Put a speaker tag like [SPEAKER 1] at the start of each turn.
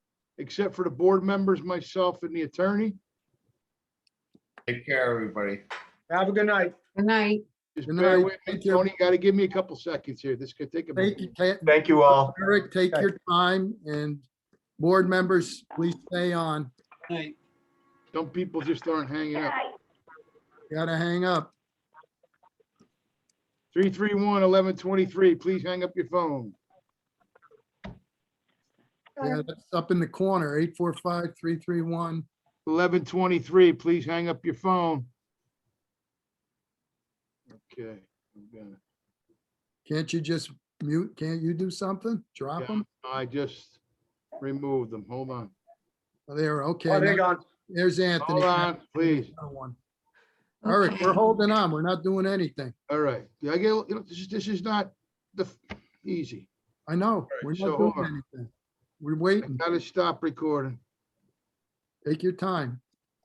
[SPEAKER 1] except for the board members, myself and the attorney.
[SPEAKER 2] Take care, everybody.
[SPEAKER 3] Have a good night.
[SPEAKER 4] Good night.
[SPEAKER 1] Just
[SPEAKER 5] Good
[SPEAKER 1] bear
[SPEAKER 5] night.
[SPEAKER 1] with me,
[SPEAKER 5] Thank you.
[SPEAKER 1] Tony, gotta give me a couple seconds here. This could take a
[SPEAKER 5] Thank
[SPEAKER 1] minute.
[SPEAKER 5] you, Ta-
[SPEAKER 6] Thank you all.
[SPEAKER 5] Eric, take your time and board members, please stay on.
[SPEAKER 1] Some people just aren't hanging up.
[SPEAKER 5] Gotta hang up.
[SPEAKER 1] 331-1123, please hang up your phone.
[SPEAKER 5] Yeah, that's up in the corner, eight, four, five, three, three, one.
[SPEAKER 1] 1123, please hang up your phone. Okay. I'm gonna-
[SPEAKER 5] Can't you just mute? Can't you do something? Drop them?
[SPEAKER 1] I just removed them. Hold on.
[SPEAKER 5] There, okay.
[SPEAKER 3] Oh, they're
[SPEAKER 5] now-
[SPEAKER 3] gone.
[SPEAKER 5] There's Anthony.
[SPEAKER 1] Hold on, please.
[SPEAKER 5] Another one. Eric, we're holding on. We're not doing anything.
[SPEAKER 1] All right. Yeah, I get, you know, this is, this is not the, f- easy.
[SPEAKER 5] I know.
[SPEAKER 1] right,
[SPEAKER 5] We're
[SPEAKER 1] so uh,
[SPEAKER 5] not doing
[SPEAKER 1] hold on.
[SPEAKER 5] anything. We're
[SPEAKER 1] I
[SPEAKER 5] waiting.
[SPEAKER 1] gotta stop recording.
[SPEAKER 5] Take your time.